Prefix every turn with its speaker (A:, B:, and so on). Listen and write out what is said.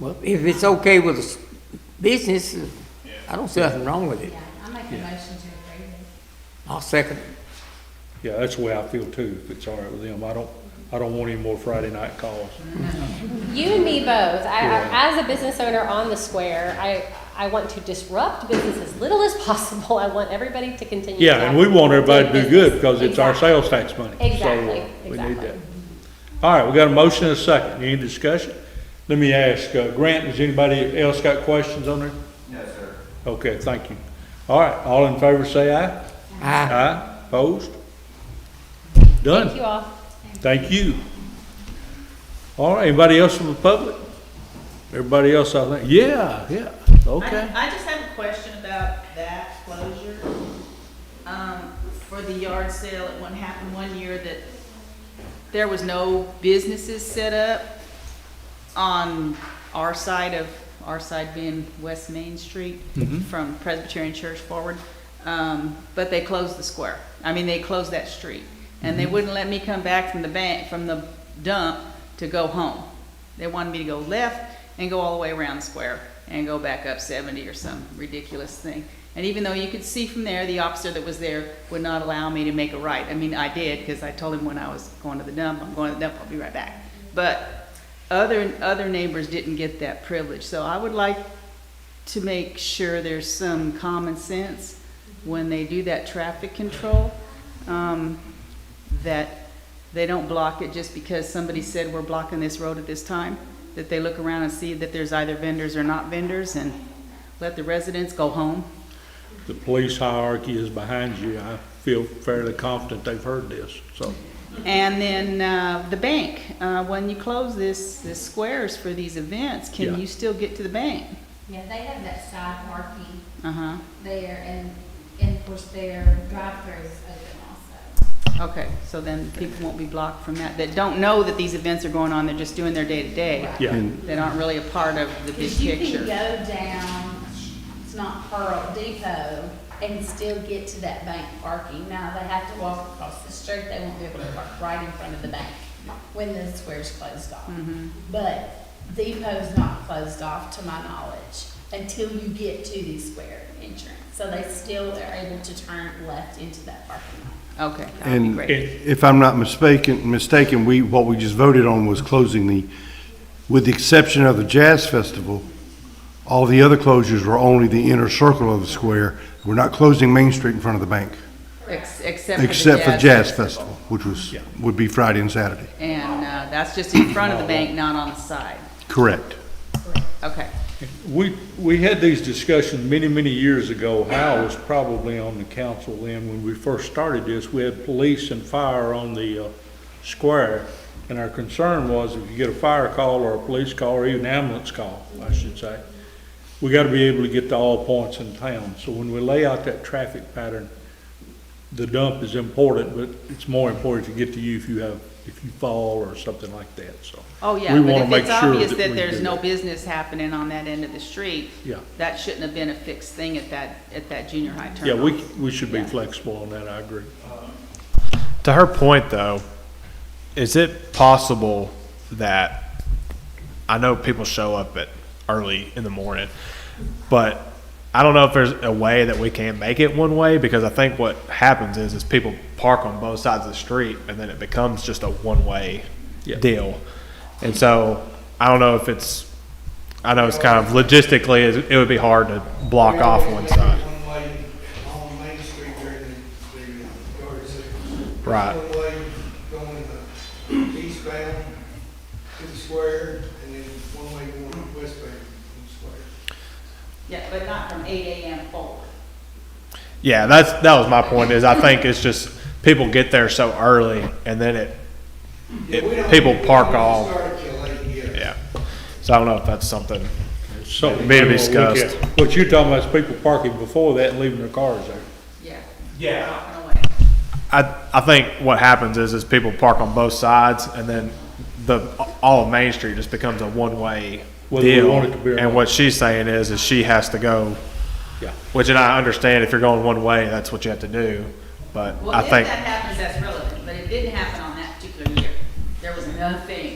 A: Well, if it's okay with the s- business, I don't see nothing wrong with it.
B: Yeah, I make a motion to approve it.
A: I'll second it.
C: Yeah, that's the way I feel too, if it's all right with them. I don't, I don't want any more Friday night calls.
D: You and me both. I,
C: Yeah.
D: I, as a business owner on the square, I, I want to disrupt business as little as possible. I want everybody to continue.
C: Yeah,
D: to
C: and we want everybody to do good because it's our
D: Exactly.
C: sales tax money. So,
D: Exactly,
C: We need that.
D: exactly.
C: All right, we got a motion and a second. Any discussion? Let me ask, uh, Grant, has anybody else got questions on there?
E: No, sir.
C: Okay, thank you. All right, all in favor say aye.
A: I,
C: Aye, opposed?
D: Thank
C: Done.
D: you all.
C: Thank you. All right, anybody else from the public? Everybody else, I think, yeah, yeah, okay.
F: I I just have a question about that closure. Um, for the yard sale, it one happened one year that there was no businesses set up on our side of, our side being West Main Street from Presbyterian Church forward. Um, but they closed the square. I mean, they closed that street. And they wouldn't let me come back from the bank, from the dump to go home. They wanted me to go left and go all the way around the square and go back up seventy or some ridiculous thing. And even though you could see from there, the officer that was there would not allow me to make a right. I mean, I did, because I told him when I was going to the dump, I'm going to the dump, I'll be right back. But other, other neighbors didn't get that privilege, so I would like to make sure there's some common sense when they do that traffic control, um, that they don't block it just because somebody said we're blocking this road at this time, that they look around and see that there's either vendors or not vendors and let the residents go home.
C: The police hierarchy is behind you. I feel fairly confident they've heard this, so.
F: And then, uh, the bank, uh, when you close this, this squares for these events,
C: Yeah.
F: can you still get to the bank?
B: Yeah, they have that side parking
F: Uh-huh,
B: there and, and of course their drive-through is open also.
F: okay, so then people won't be blocked from that, that don't know that these events are going on, they're just doing their day-to-day.
B: Right.
C: Yeah,
F: That aren't really a part of the big
B: Cause you can
F: picture.
B: go down, it's not Pearl Depot, and still get to that bank parking. Now they have to walk across the street, they won't be able to park right in front of the bank when the square's closed off. But Depot's not closed off, to my knowledge, until you get to the square entrance. So they still are able to turn left into that parking lot.
F: Okay, that'd be
G: And
F: great.
G: if I'm not mistaken, mistaken, we, what we just voted on was closing the, with the exception of the Jazz Festival, all the other closures were only the inner circle of the square. We're not closing Main Street in front of the bank,
F: Ex- Except for the
G: except for Jazz Festival, which was, would be Friday and Saturday.
F: And uh, that's just in front of the bank, not on the side.
G: Correct.
F: Okay.
C: we, we had these discussions many, many years ago. Hal was probably on the council then, when we first started this, we had police and fire on the, uh, square. And our concern was if you get a fire call or a police call, or even ambulance call, I should say, we gotta be able to get to all points in town. So when we lay out that traffic pattern, the dump is important, but it's more important to get to you if you have, if you fall or something like that, so.
F: Oh, yeah,
C: We
F: but
C: wanna
F: if
C: make
F: it's
C: sure
F: obvious
C: we
F: that there's
C: do
F: no
C: that.
F: business happening on that end of the street,
C: Yeah.
F: that shouldn't have been a fixed thing at that, at that junior high
C: Yeah,
F: turnoff.
C: we, we should be flexible on that, I agree.
H: To her point, though, is it possible that I know people show up at early in the morning, but I don't know if there's a way that we can make it one way because I think what happens is is people park on both sides of the street and then it becomes just a one way
C: Yeah.
H: deal, and so I don't know if it's I know it's kind of logistically it it would be hard to block off one side.
I: One-way on Main Street during the, the yard sale.
H: Right.
I: One-way going uh, eastbound to the square, and then one-way going westbound to the square.
F: Yeah, but not from eight AM forward.
H: Yeah, that's that was my point. Is I think it's just people get there so early, and then it,
I: Yeah, we
H: it
I: don't-
H: people
I: we don't
H: park all.
I: Start till late, yeah.
H: Yeah, so I don't know if that's something.
C: So
H: May be discussed.
C: What you're talking about is people parking before that and leaving their cars there.
F: Yeah.
H: Yeah,
F: Walking away.
H: I I think what happens is is people park on both sides, and then the all of Main Street just becomes a one way
C: Whether we
H: deal.
C: want it to be or
H: And
C: not.
H: what she's saying is is she has to go,
C: Yeah.
H: which and I understand if you're going one way, that's what you have to do. But
F: Well,
H: I
F: if that
H: think
F: happens, that's relevant, but it didn't happen on that particular year. There was nothing